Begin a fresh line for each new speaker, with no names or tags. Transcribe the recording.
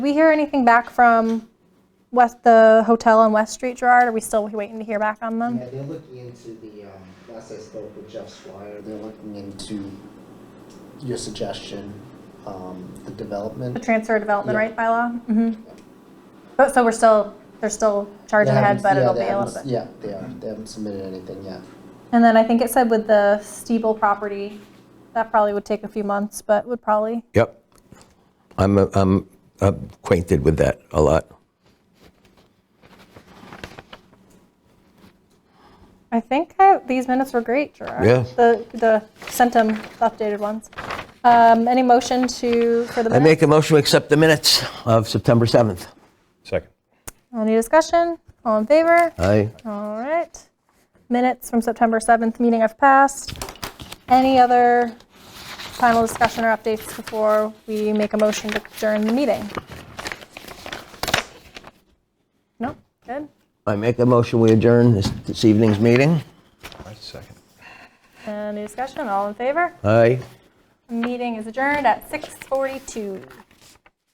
we hear anything back from West, the hotel on West Street, Gerard? Are we still waiting to hear back on them?
Yeah, they're looking into the, um, last I spoke with Jeff Swire, they're looking into your suggestion, um,
The
the development.
transfer development
Yeah.
right bylaw? Mm-hmm. But, so we're still, they're still charging
They
ahead,
haven't-
but
yeah,
it'll
they
be a little
haven't-
bit.
Yeah, they are, they haven't submitted anything yet.
And then I think it said with the Steeble property, that probably would take a few months, but would probably,
Yep. I'm, uh, I'm acquainted with that a lot.
I think I- these minutes were great, Gerard.
Yeah.
The, the, sent them the updated ones. Um, Any motion to, for the
I
minutes?
make a motion to accept the minutes of September 7th.
Second.
Any discussion? All in favor?
Aye.
All right. Minutes from September 7th meeting have passed. Any other final discussion or updates before we make a motion to adjourn the meeting? No? Good.
I make a motion, we adjourn this, this evening's meeting.
I second.
Any discussion? All in favor?
Aye.
Meeting is adjourned at 6:42.